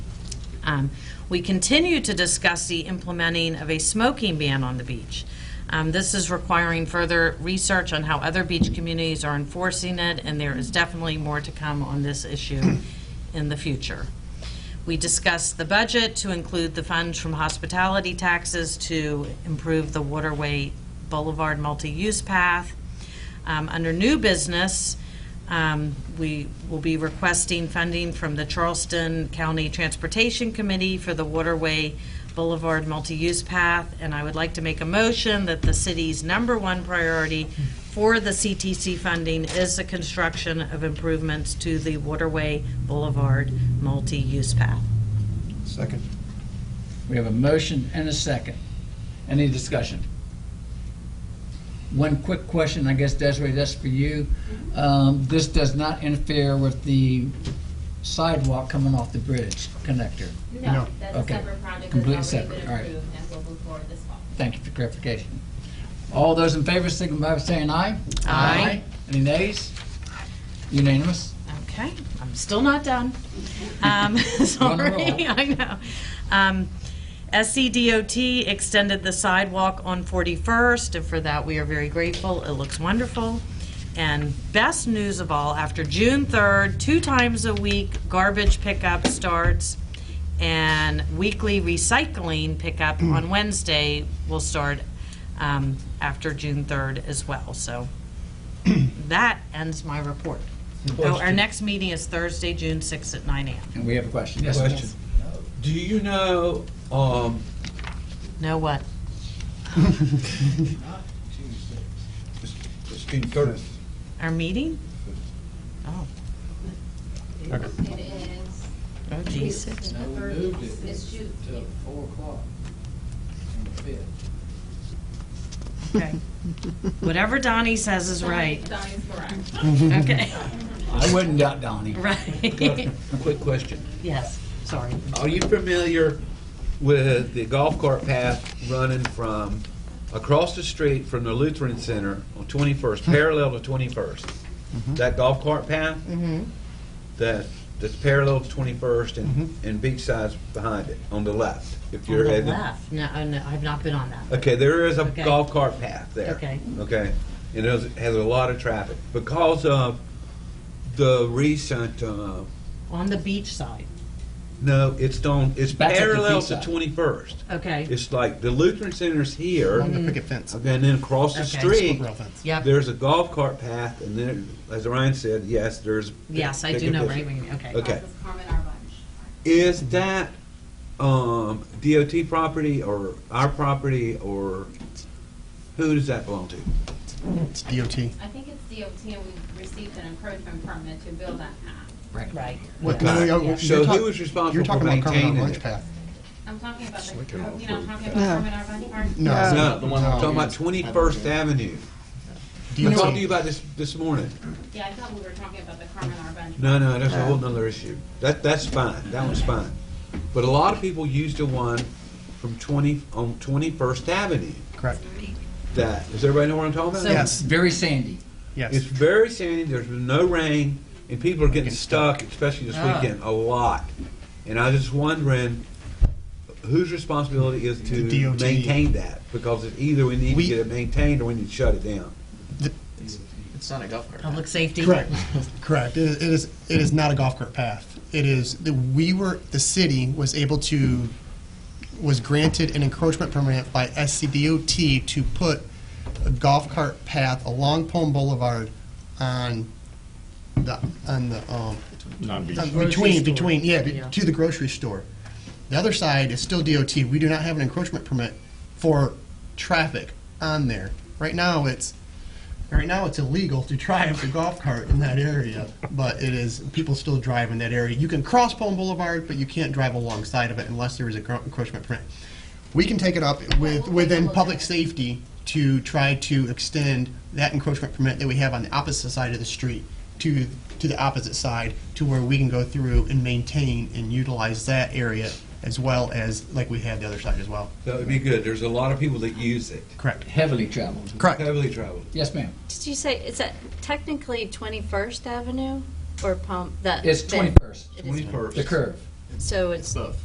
Um, We continue to discuss the implementing of a smoking ban on the beach. Um, This is requiring further research on how other beach communities are enforcing it, and there is definitely more to come on this issue in the future. We discussed the budget to include the funds from hospitality taxes to improve the Waterway Boulevard multi-use path. Um, Under new business, um, we will be requesting funding from the Charleston County Transportation Committee for the Waterway Boulevard multi-use path, and I would like to make a motion that the city's number one priority for the CTC funding is the construction of improvements to the Waterway Boulevard multi-use path. Second. We have a motion and a second. Any discussion? One quick question, I guess Desiree, that's for you. Um, This does not interfere with the sidewalk coming off the bridge connector. No. No, that's a Okay. separate project Completely that's already separate. been All right. approved and will move forward this fall. Thank you for clarification. All those in favor signify by saying aye. Aye. Any nays? Unanimous? Okay, I'm still not done. Um, Sorry, I know. Um, SCDOT extended the sidewalk on 41st, and for that, we are very grateful. It looks wonderful. And best news of all, after June 3rd, two times a week, garbage pickup starts, and weekly recycling pickup on Wednesday will start um, after June 3rd as well. So that ends my report. Oh, Our next meeting is Thursday, June 6th at 9 a.m. And we have a question. Yes, Question. Do you know, um, Know what? It's June thirtieth. Our meeting? Oh, It is, oh geez. it's the No, we third, moved it's it. it's June. till four o'clock on the fifth. Okay. Whatever Donnie says is right. Donnie's correct. Okay, I wouldn't doubt Donnie. right. quick question. Yes, sorry. Are you familiar with the golf cart path running from across the street from the Lutheran Center on 21st, parallel to 21st? That golf cart path? That, that's parallel to 21st and, and Beachside's behind it, on the left, if On you're the heading. left. No, oh, no, I've not been on that. Okay, there is a Okay. golf cart path there. Okay. Okay, and it has, has a lot of traffic because of the recent. Uh, On the beach side. no, it's on. It's That's at the parallel to seaside. Twenty First. Okay, It's like the Lutheran Center's here, On the picket fence. okay, and then across the Okay. street, Rail fence. yep. there's a golf cart path, and then, as Ryan said, yes, there's. Yes, I pick do a know what business. you mean. Okay. Okay, This is Carmen Arbunch. is that um, DOT property or our property or who does that belong to? It's DOT. I think it's DOT and we received an encouragement permit to build that path. Right. What- Okay. no, no, no, Yeah. you're So talk- who is responsible You're talking for about Carmen maintaining Lunch it? Path. I'm talking about the, Slick you and know, all I'm talking about No. Carmen Arbunch Park. No. No, Uh, the one- talking about Twenty First Avenue. I talked to you DOT. about this this morning. Yeah, I thought we were talking about the Carmen Arbunch. No, no, that's Uh. a whole nother issue. That that's fine. That one's fine. But a lot of people use the one from twenty on Twenty First Avenue. Correct. That does everybody know what I'm talking about? So- Yes, Very sandy. It's yes. very sandy. There's been no rain, and people are getting stuck, especially this Ah. weekend, a lot. And I was just wondering whose responsibility is to The DOT. maintain that because it's either we need We- to get it maintained or we need to shut it down. It's not a golf cart. Public safety. Correct, correct. It it is, it is not a golf cart path. It is, the- we were, the city was able to, was granted an encroachment permit by SCDOT to put a golf cart path along Palm Boulevard on the, on the, um, on- between, between, yeah, be- Yeah. to the grocery store. The other side is still DOT. We do not have an encroachment permit for traffic on there. Right now, it's, right now, it's illegal to drive the golf cart in that area, but it is, people still drive in that area. You can cross Palm Boulevard, but you can't drive alongside of it unless there is a gro- encroachment permit. We can take it up with, within public safety to try to extend that encroachment permit that we have on the opposite side of the street to, to the opposite side, to where we can go through and maintain and utilize that area as well as, like we have the other side as well. So it'd be good. There's a lot of people that use it. Correct. Heavily traveled. Correct. Heavily traveled. Yes, ma'am. Did you say, is that technically 21st Avenue or Palm, that? It's that- 21st, It is- Twenty first. the curve. So it's Both.